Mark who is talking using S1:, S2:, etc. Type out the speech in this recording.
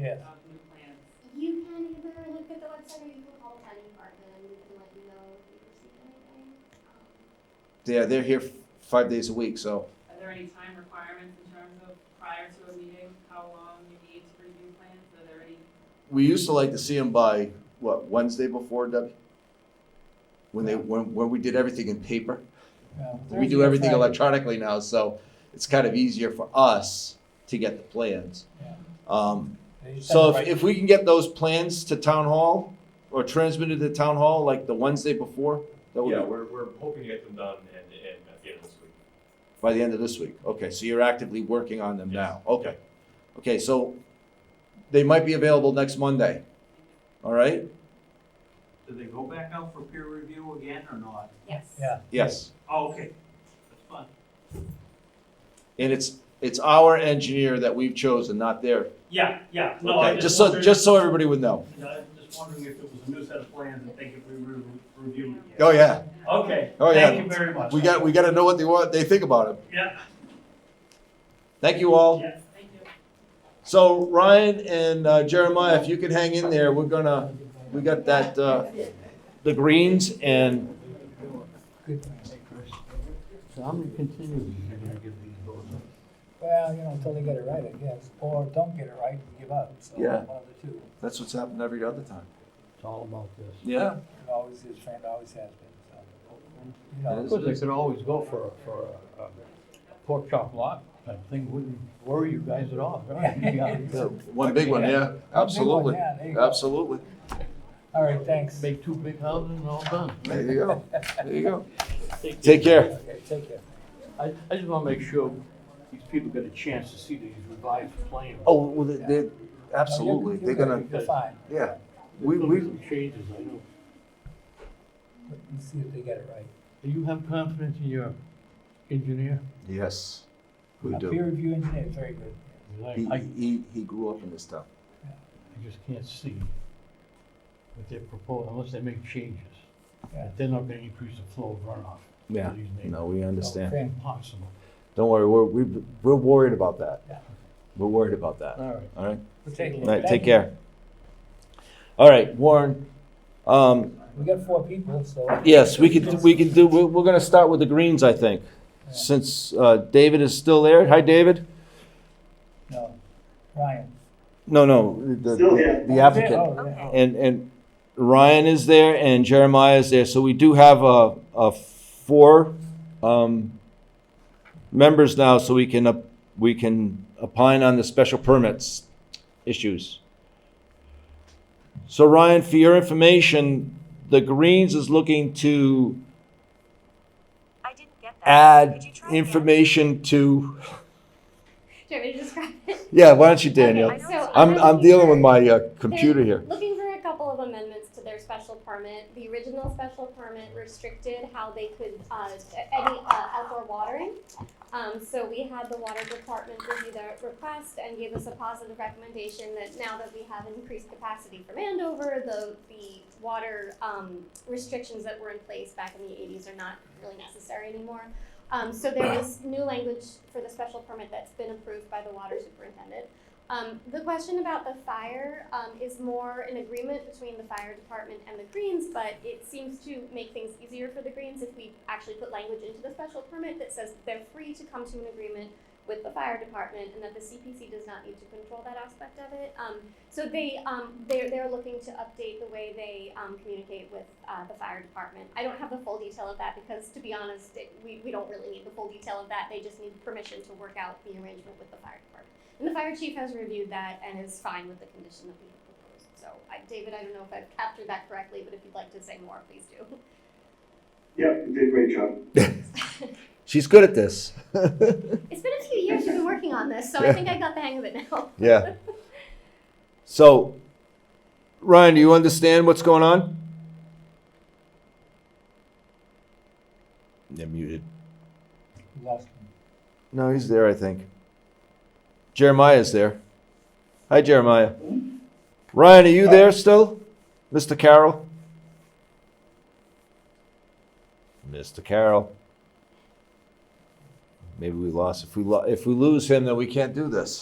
S1: Yes.
S2: of new plans.
S3: You can either look at the website or you can call the planning department and we can let you know if you received anything. Um,
S4: Yeah, they're here f- five days a week, so
S2: Are there any time requirements in terms of prior to a meeting, how long you need to review plans? Are there any,
S4: we used to like to see them by, what, Wednesday before, Debbie? When they, when, when we did everything in paper. We do everything electronically now, so it's kind of easier for us to get the plans.
S1: Yeah.
S4: Um, So if, if we can get those plans to town hall or transmitted to town hall like the Wednesday before, that would
S5: Yeah,
S4: be
S5: we're, we're hoping to get them done and, and at the end of this week.
S4: by the end of this week. Okay, so you're actively working on them
S5: Yes.
S4: now. Okay. Okay, so they might be available next Monday. All right?
S6: Do they go back out for peer review again or not?
S2: yes.
S1: Yeah.
S4: Yes.
S6: Oh, okay, that's fun.
S4: And it's it's our engineer that we've chosen, not their.
S6: Yeah, yeah, no, I
S4: Okay,
S6: just
S4: just so
S6: wondered,
S4: just so everybody would know.
S6: I was just wondering if it was a new set of plans and they could re- re- review it. yet.
S4: Oh yeah.
S6: Okay,
S4: Oh, yeah.
S6: thank you very much.
S4: We got we gotta know what they want they think about it.
S6: Yeah,
S4: Thank you all.
S6: yeah,
S2: Thank you.
S4: So Ryan and uh, Jeremiah, if you could hang in there, we're gonna, we got that, uh, the greens and,
S7: So how many continues are you gonna give these votes?
S1: Well, you know, until they get it right, I guess, or don't get it right and give up, so
S4: Yeah.
S1: one of the two.
S4: that's what's happened every other time.
S7: It's all about this.
S4: Yeah.
S1: It always is, friend always has been, so. You
S7: Of
S1: know,
S7: course, they could always go for, a- for a- a pork chop lot, that thing wouldn't worry you guys at all.
S1: Yeah.
S4: One big one, yeah, absolutely,
S1: Yeah, there you go.
S4: absolutely.
S1: All right, thanks.
S7: Make two big houses and all done.
S4: There you go, there you go. Take care.
S1: Okay, take care.
S7: I, I just wanna make sure these people get a chance to see these revised plans.
S4: Oh, well, they, they- absolutely, they're gonna,
S1: You're fine,
S4: yeah,
S7: There's
S4: we,
S7: gonna
S4: we,
S7: be some Changes, I know.
S1: let's see if they get it right.
S7: Do you have confidence in your engineer?
S4: yes, we
S1: A
S4: do.
S1: peer review engineer, very good.
S7: I,
S4: He,
S7: I
S4: he, he grew up in this town.
S7: I just can't see what they're proposing, unless they make changes. Uh,
S1: Yeah.
S7: They're not gonna increase the flow of runoff. to
S4: Yeah.
S7: these neighbors.
S4: No, we understand.
S1: Okay.
S7: Impossible.
S4: Don't worry, we're, we, we're worried about that.
S1: Yeah.
S4: We're worried about that,
S7: All right.
S4: all right?
S1: We'll take a
S4: All
S1: look.
S4: right,
S1: Thank
S4: take
S1: you.
S4: care. All right, Warren. Um,
S1: We got four people, so.
S4: yes, we could, we could do, we're, we're gonna start with the greens, I think. Since, uh, David is still there. Hi, David?
S1: No, Ryan.
S4: No, no, the, the- the applicant.
S1: Oh, yeah.
S4: And, and Ryan is there and Jeremiah is there. So we do have a, a four, um, members now, so we can, op- we can opine on the special permits issues. So Ryan, for your information, the Greens is looking to
S8: I didn't get that.
S4: add
S8: Could you try again?
S4: information
S3: Do
S4: to,
S3: you want me to describe it?
S4: yeah, why don't you, Daniel?
S8: know
S3: Okay, so
S4: I'm, I'm
S3: looking
S4: dealing
S3: for-
S4: with my uh, computer here.
S3: Looking for a couple of amendments to their special permit. The original special permit restricted how they could, uh, any, uh, outdoor watering. Um, so we had the water department review their request and gave us a positive recommendation that now that we have increased capacity from Andover, the, the water, um, restrictions that were in place back in the eighties are not really necessary anymore. Um, so there was new language for the special permit that's been approved by the water superintendent. Um, the question about the fire um, is more an agreement between the fire department and the Greens, but it seems to make things easier for the Greens if we actually put language into the special permit that says they're free to come to an agreement with the fire department and that the CPC does not need to control that aspect of it. Um, so they, um, they're, they're looking to update the way they um, communicate with uh, the fire department. I don't have the full detail of that because, to be honest, it, we, we don't really need the full detail of that. They just need permission to work out the arrangement with the fire department. And the fire chief has reviewed that and is fine with the condition that we have proposed. So, I, David, I don't know if I've captured that correctly, but if you'd like to say more, please do.
S9: Yep, you did a great job.
S4: She's good at this.
S3: It's been a few years you've been working on this, so I think I got the hang of it now.
S4: Yeah. So, Ryan, do you understand what's going on? They're muted.
S1: You lost me.
S4: No, he's there, I think. Jeremiah's there. Hi, Jeremiah. Ryan, are you there still? Mr. Carroll? Mr. Carroll. Maybe we lost. If we, lo- if we lose him, then we can't do this.